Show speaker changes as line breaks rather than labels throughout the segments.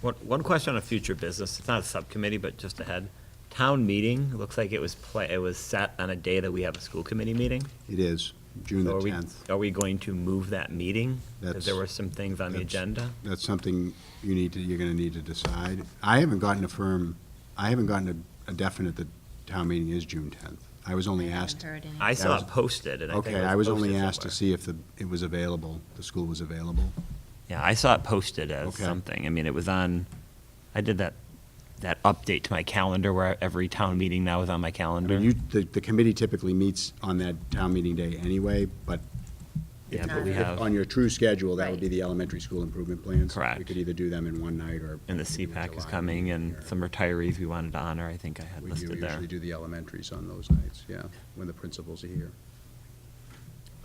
One, one question on future business, it's not a subcommittee, but just ahead. Town meeting, it looks like it was pla, it was set on a day that we have a school committee meeting.
It is, June the
So are we-
10th.
Are we going to move that meeting? Because
That's-
there were some things on the
That's-
agenda.
That's something you need to, you're going to need to decide. I haven't gotten a firm, I haven't gotten a- a definite that town meeting is June 10th. I was only
haven't
asked,
heard anything.
I saw
was-
it posted, and I think
okay,
it
I was only
posted
asked to
somewhere.
see if the, it was available, the school was available.
Yeah, I saw it posted as
Okay.
something. I mean, it was on, I did that, that update to my calendar where every town meeting now is on my
I
calendar.
mean, you, the, the committee typically meets on that town meeting day anyway, but
Yeah, but
Not
we
really.
have,
on your true schedule, that would be
Right.
the elementary school improvement plans. We
Correct.
could either do them in one night or.
and the
we could do a
CPAC is
July
coming,
meeting
and
or-
some retirees we wanted to honor, I think I had
We do
listed there.
usually do the elementaries on those nights, yeah, when the principals are here.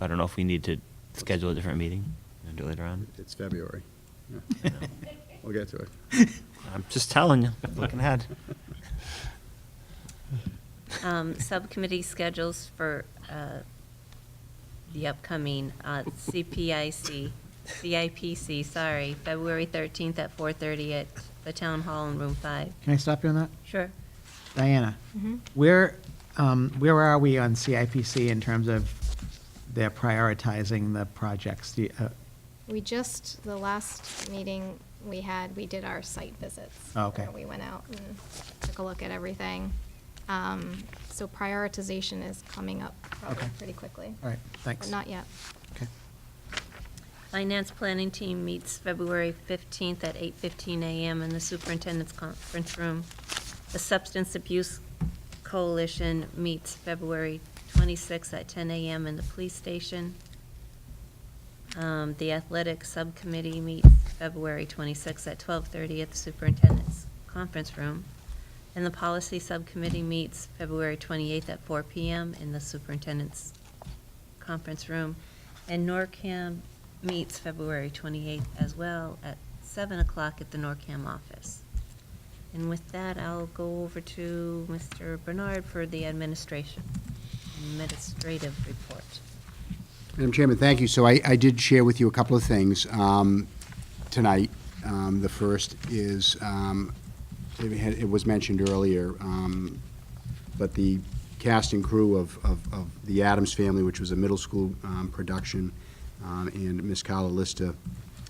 I don't know if we need to schedule a different meeting and do it later on.
It's February. Yeah,
I know.
We'll get to it.
I'm just telling you, looking ahead.
Um, Subcommittee schedules for uh, the upcoming uh, CPIC, CIPC, sorry, February 13th at 4:30 at the Town Hall in Room 5.
Can I stop you on that?
Sure.
Diana, where, um, where are we on CIPC in terms of their prioritizing the projects? Do you- uh,
We just, the last meeting we had, we did our site visits.
Oh, okay.
where We went out and took a look at everything. Um, So prioritization is coming up probably
Okay.
pretty quickly.
All right, thanks.
But not yet.
Okay.
Finance Planning Team meets February 15th at 8:15 a.m. in the Superintendent's Conference Room. The Substance Abuse Coalition meets February 26th at 10 a.m. in the Police Station. Um, The Athletic Subcommittee meets February 26th at 12:30 at the Superintendent's Conference Room. And the Policy Subcommittee meets February 28th at 4 p.m. in the Superintendent's Conference Room. And NORCAM meets February 28th as well at 7 o'clock at the NORCAM office. And with that, I'll go over to Mr. Bernard for the administration, administrative report.
Madam Chairman, thank you. So I, I did share with you a couple of things um, tonight. Um, The first is, um, it had- it was mentioned earlier, um, but the cast and crew of, of, of The Adams Family, which was a middle school um, production, um, and Miss Carla Lista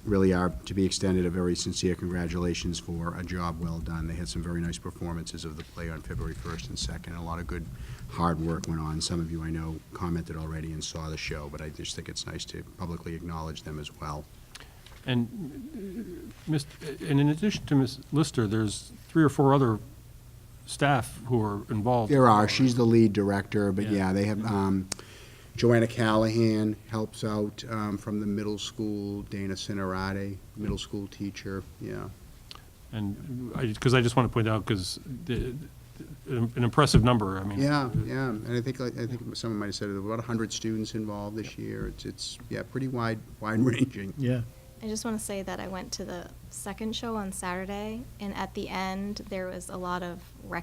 really are, to be extended, a very sincere congratulations for a job well done. They had some very nice performances of the play on February 1st and 2nd. A lot of good, hard work went on. Some of you, I know, commented already and saw the show, but I just think it's nice to publicly acknowledge them as well.
And, uh, Mist- and in addition to Ms. Lister, there's three or four other staff who are involved.
There are, she's the lead director, but
Yeah.
yeah, they have, um, Joanna Callahan helps out, um, from the middle school, Dana Cinerati, middle school teacher, yeah.
And I, because I just want to point out, because an impressive number, I mean.
Yeah, yeah, and I think, like- I think someone might have said, there were about a hundred students involved this year, it's, it's, yeah, pretty wide, wide ranging.
Yeah.
I just want to say that I went to the second show on Saturday, and at the end, there was a lot of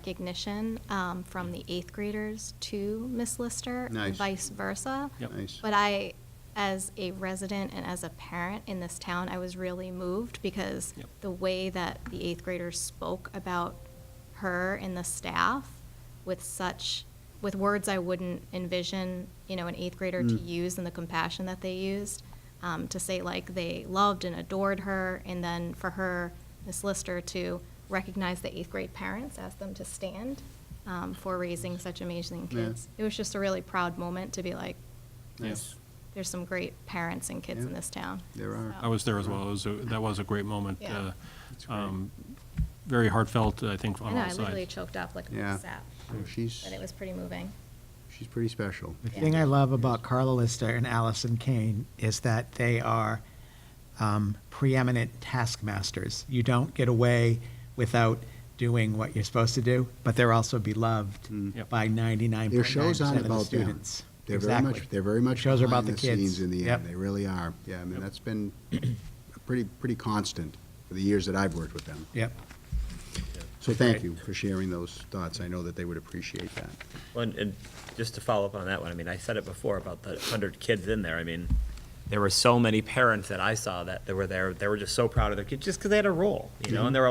recognition um, from the eighth graders to Miss Lister. and
Nice.
Vice versa.
Yep.
Nice.
But I, as a resident and as a parent in this town, I was really moved because
Yep.
the way that the eighth graders spoke about her and the staff with such, with words I wouldn't envision, you know, an eighth grader to
Mm.
use and the compassion that they used, um, to say like they loved and adored her, and then for her, Miss Lister, to recognize the eighth grade parents, ask them to stand um, for raising such amazing
Yeah.
kids. It was just a really proud moment to be like,
Yes.
there's some great parents and kids in
Yeah.
this town.
There are.
So-
I was there as well. It was, a- that was a great moment.
Yeah.
uh,
That's great.
um, Very heartfelt, I think,
I
on
know,
all
I literally
sides.
choked up like
Yeah.
a sap,
So She's,
but it was pretty moving.
she's pretty special.
The thing I
Yeah.
love about Carla Lister and Allison Kane is that they are um, preeminent taskmasters. You don't get away without doing what you're supposed to do, but they're also beloved
Yep.
by 99.9%
Their shows aren't
of the
about them.
students.
They're very
Exactly.
much, they're very much
Shows are about
behind
the
the scenes
kids.
in the
Yep.
end, they really are. Yeah, I mean,
Yep.
that's been pretty, pretty constant for the years that I've worked with them.
Yep.
So thank you for sharing those thoughts, I know that they would appreciate that.
Well, And, and just to follow up on that one, I mean, I said it before about the hundred kids in there, I mean, there were so many parents that I saw that they were there, they were just so proud of their kids, just because they had a role, you know, and they were